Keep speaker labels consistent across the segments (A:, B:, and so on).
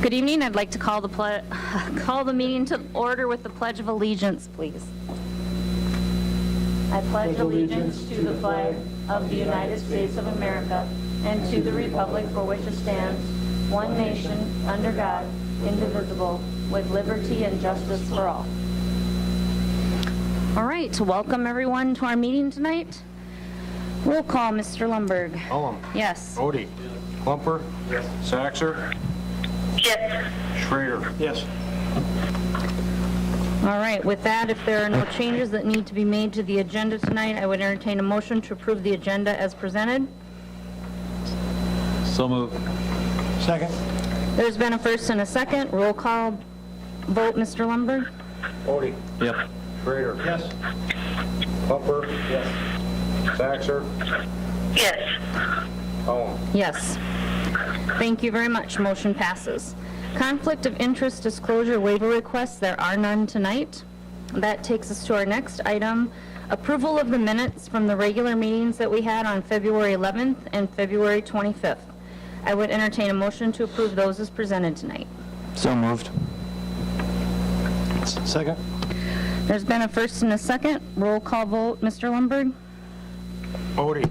A: Good evening. I'd like to call the, ple- call the meeting to order with the Pledge of Allegiance, please. I pledge allegiance to the flag of the United States of America and to the republic for which it stands, one nation, under God, indivisible, with liberty and justice for all. All right, welcome everyone to our meeting tonight. Roll call, Mr. Lundberg.
B: Cullum.
A: Yes.
B: Odie. Klumper. Yes. Saxor. Yes. Schrader. Yes.
A: All right, with that, if there are no changes that need to be made to the agenda tonight, I would entertain a motion to approve the agenda as presented.
C: So moved.
B: Second.
A: There's been a first and a second. Roll call vote, Mr. Lumberg?
B: Odie.
C: Yep.
B: Schrader. Yes. Klumper. Yes. Saxor. Yes. Cullum.
A: Yes. Thank you very much. Motion passes. Conflict of interest disclosure waiver requests, there are none tonight. That takes us to our next item, approval of the minutes from the regular meetings that we had on February 11th and February 25th. I would entertain a motion to approve those as presented tonight.
C: So moved. Second?
A: There's been a first and a second. Roll call vote, Mr. Lundberg?
B: Odie.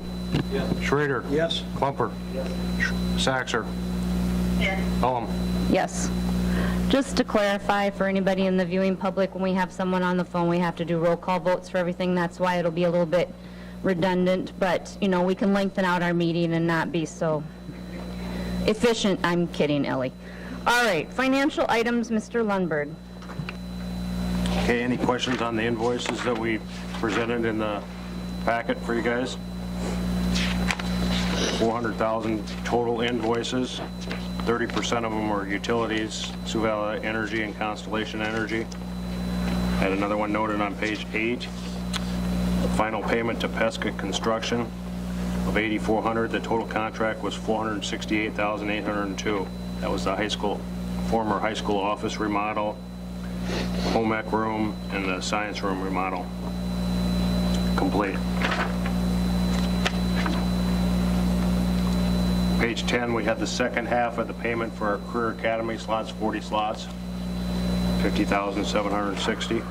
B: Yes. Schrader. Yes. Klumper. Yes. Saxor. Yes. Cullum.
A: Yes. Just to clarify for anybody in the viewing public, when we have someone on the phone, we have to do roll call votes for everything. That's why it'll be a little bit redundant, but, you know, we can lengthen out our meeting and not be so efficient. I'm kidding, Ellie. All right, financial items, Mr. Lundberg.
B: Okay, any questions on the invoices that we presented in the packet for you guys? 400,000 total invoices, 30% of them were utilities, Sioux Valley Energy and Constellation Energy. Had another one noted on page eight, the final payment to Pesca Construction of 8,400, the total contract was 468,802. That was the high school, former high school office remodel, home ec room and the science room remodel complete. Page 10, we had the second half of the payment for our career academy slots, 40 slots, 50,760.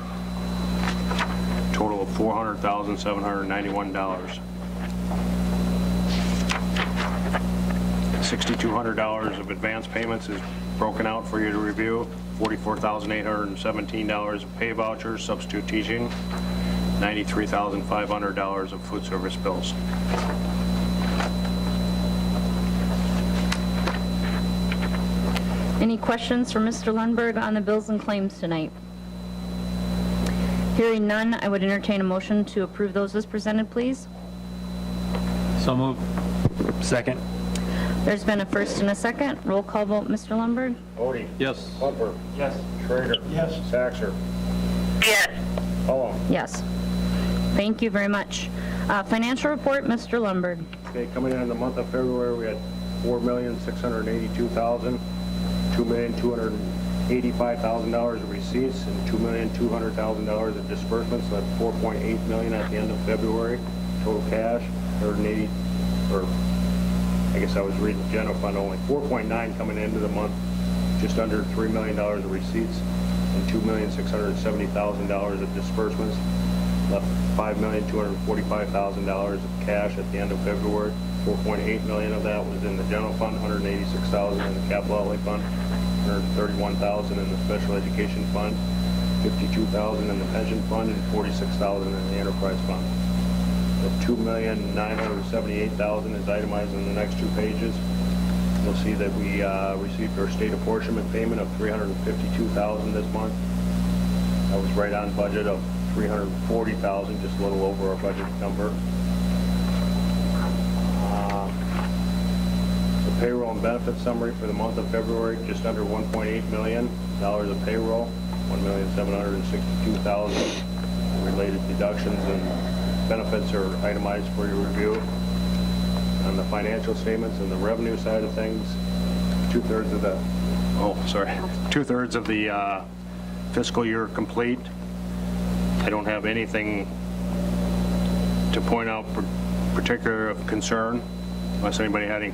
B: Total of $400,791. $6,200 of advance payments is broken out for you to review, $44,817 of pay vouchers, substitute teaching, $93,500 of food service bills.
A: Any questions for Mr. Lundberg on the bills and claims tonight? Hearing none, I would entertain a motion to approve those as presented, please.
C: So moved. Second?
A: There's been a first and a second. Roll call vote, Mr. Lundberg?
B: Odie.
C: Yes.
B: Plumper. Yes. Schrader. Yes. Saxor. Yes.
A: Yes. Thank you very much. Uh, Financial report, Mr. Lundberg.
B: Okay, coming in in the month of February, we had four million, six hundred and eighty-two thousand, two million, two hundred and eighty-five thousand dollars of receipts and two million, two hundred thousand dollars of disbursements, so that's four point eight million at the end of February. Total cash, hundred and eighty, or, I guess I was reading general fund only, four point nine coming into the month, just under three million dollars of receipts and two million, six hundred and seventy thousand dollars of disbursements, left $5,245,000 of cash at the end of February. 4.8 million of that was in the general fund, 186,000 in the capital outlay fund, 131,000 in the special education fund, 52,000 in the pension fund, and 46,000 in the enterprise fund. The 2,978,000 is itemized in the next two pages. You'll see that we uh, received our state apportionment payment of 352,000 this month. I was right on budget of 340,000, just a little over our budget number. Uh, The payroll and benefit summary for the month of February, just under 1.8 million dollars of payroll, 1,762,000 related deductions and benefits are itemized for your review. On the financial statements and the revenue side of things, two-thirds of the, oh, sorry, two-thirds of the uh, fiscal year complete. I don't have anything to point out par- particular of concern, unless anybody had any